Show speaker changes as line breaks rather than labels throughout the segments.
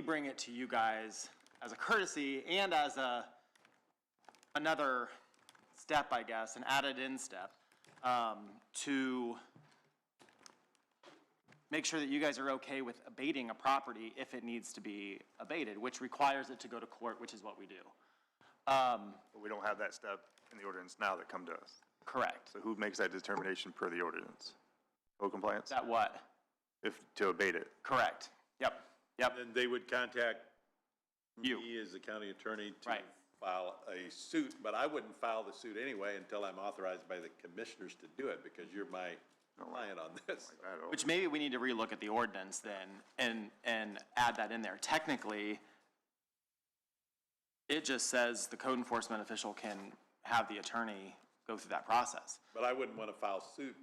bring it to you guys as a courtesy and as a, another step, I guess, an added-in step, um, to make sure that you guys are okay with abating a property if it needs to be abated, which requires it to go to court, which is what we do. Um,
But we don't have that step in the ordinance now that come to us.
correct.
So who makes that determination per the ordinance? Code compliance?
That what?
If, to abate it?
Correct. Yep, yep.
Then they would contact
You.
me as the county attorney to
Right.
file a suit, but I wouldn't file the suit anyway until I'm authorized by the commissioners to do it, because you're my client on this.
I don't-
Which maybe we need to relook at the ordinance then and, and add that in there. Technically, it just says the code enforcement official can have the attorney go through that process.
But I wouldn't want to file suit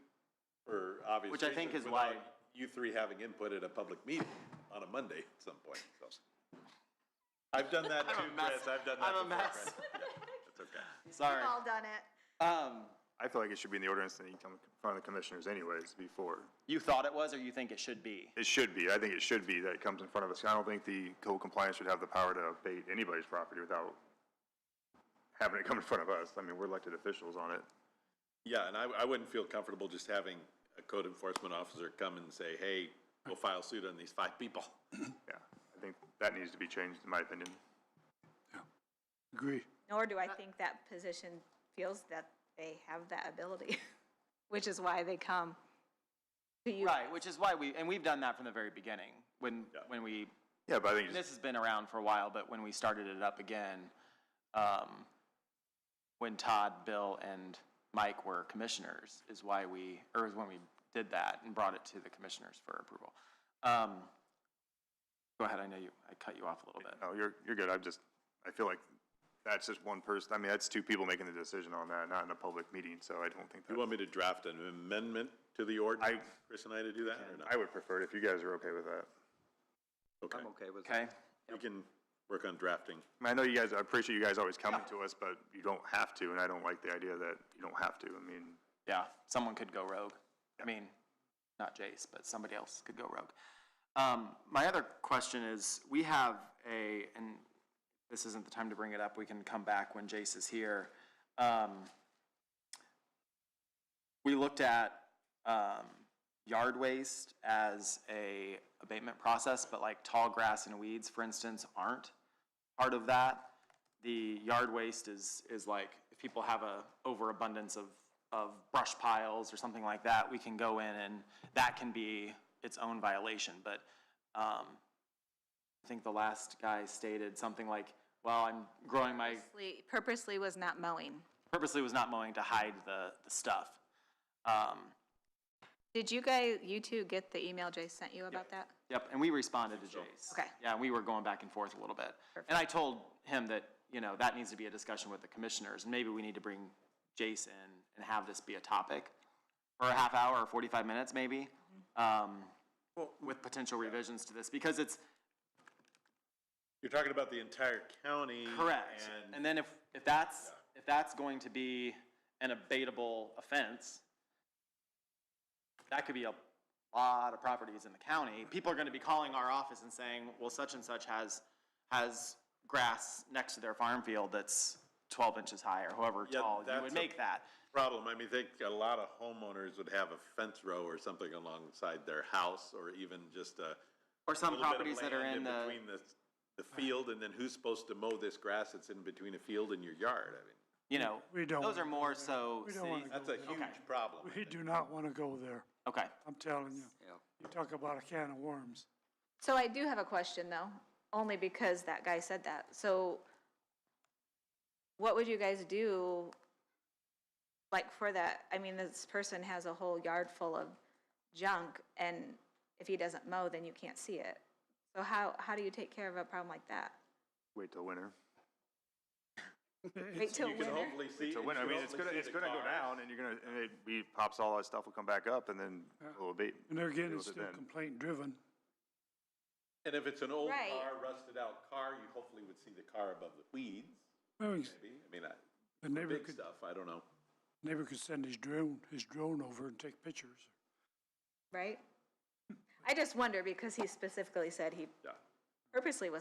for obvious
Which I think
reasons
is why-
without You three having input at a public meeting on a Monday at some point, so. I've done that too, Chris, I've done that
I'm a
before,
mess.
Chris. That's okay.
Sorry.
We've all done it.
Um,
I feel like it should be in the ordinance and you come in front of the commissioners anyways before.
you thought it was or you think it should be?
It should be. I think it should be that it comes in front of us. I don't think the code compliance should have the power to abate anybody's property without having it come in front of us. I mean, we're elected officials on it.
Yeah, and I, I wouldn't feel comfortable just having a code enforcement officer come and say, hey, we'll file suit on these five people.
Yeah, I think that needs to be changed, in my opinion.
Agree.
Nor do
Uh,
I think that position feels that they have that ability, which is why they come to you.
Right, which is why we, and we've done that from the very beginning, when, when we,
Yeah, but I think,
this
it's-
has been around for a while, but when we started it up again, um, when Todd, Bill, and Mike were commissioners, is why we, or is when we did that and brought it to the commissioners for approval. Um, Go ahead, I know you, I cut you off a little bit.
no, you're, you're good. I'm just, I feel like that's just one person. I mean, that's two people making the decision on that, not in a public meeting, so I don't think
You
that.
want me to draft an amendment to the ordinance, Chris and I, to do that or not?
I would prefer it if you guys are okay with that.
Okay,
okay with
Okay,
we can work on drafting.
I mean, I know you guys, I appreciate you guys always coming to us, but you don't have to, and I don't like the idea that you don't have to. I mean,
yeah, someone could go rogue. I mean, not Jace, but somebody else could go rogue. Um, my other question is, we have a, and this isn't the time to bring it up, we can come back when Jace is here. Um, we looked at, um, yard waste as a abatement process, but like tall grass and weeds, for instance, aren't part of that. The yard waste is, is like, if people have a overabundance of, of brush piles or something like that, we can go in and that can be its own violation, but, um, I think the last guy stated something like, well, I'm growing my,
Purposely- Purposely was not mowing.
purposely was not mowing to hide the, the stuff. Um,
Did you guys, you two get the email Jay sent you about that?
Yep, and we responded to Jace.
Okay.
Yeah, and we were going back and forth a little bit. And I told him that, you know, that needs to be a discussion with the commissioners, and maybe we need to bring Jace in and have this be a topic for a half hour or forty-five minutes, maybe, um, with potential revisions to this, because it's,
You're talking about the entire county.
Correct.
And
And then if, if that's, if that's going to be an abatable offense, that could be a lot of properties in the county. People are gonna be calling our office and saying, well, such and such has, has grass next to their farm field that's twelve inches high or however
Yeah,
tall you
that's
would
a-
make that.
problem, I mean, I think a lot of homeowners would have a fence row or something alongside their house, or even just a.
Or some
little bit of
properties that are
land
in the,
Between the, the field, and then who's supposed to mow this grass that's in between a field and your yard, I mean,
you know,
We don't
those are
wanna
more so
We don't
cities.
wanna
that's a huge problem. I
We
think.
do not want to go there,
Okay,
I'm telling you.
Yeah.
You talk about a can of worms.
So I do have a question, though, only because that guy said that. So what would you guys do, like, for that? I mean, this person has a whole yard full of junk, and if he doesn't mow, then you can't see it. So how, how do you take care of a problem like that?
wait till winter.
Wait till
You can
winter?
hopefully see.
Till
you
winter, I
can
mean, it's gonna,
hopefully see
it's
the
gonna go
cars.
down and you're gonna, and it, we pops all that stuff will come back up and then it'll abate.
And they're
Deal
getting
with it
still
then.
complaint driven.
And if it's an old
Right.
car, rusted out car, you hopefully would see the car above the weeds,
The
maybe. I mean, I,
neighbor
big
could,
stuff, I don't know.
neighbor could send his drone, his drone over and take pictures.
Right? I just wonder, because he specifically said he
Yeah.
purposely was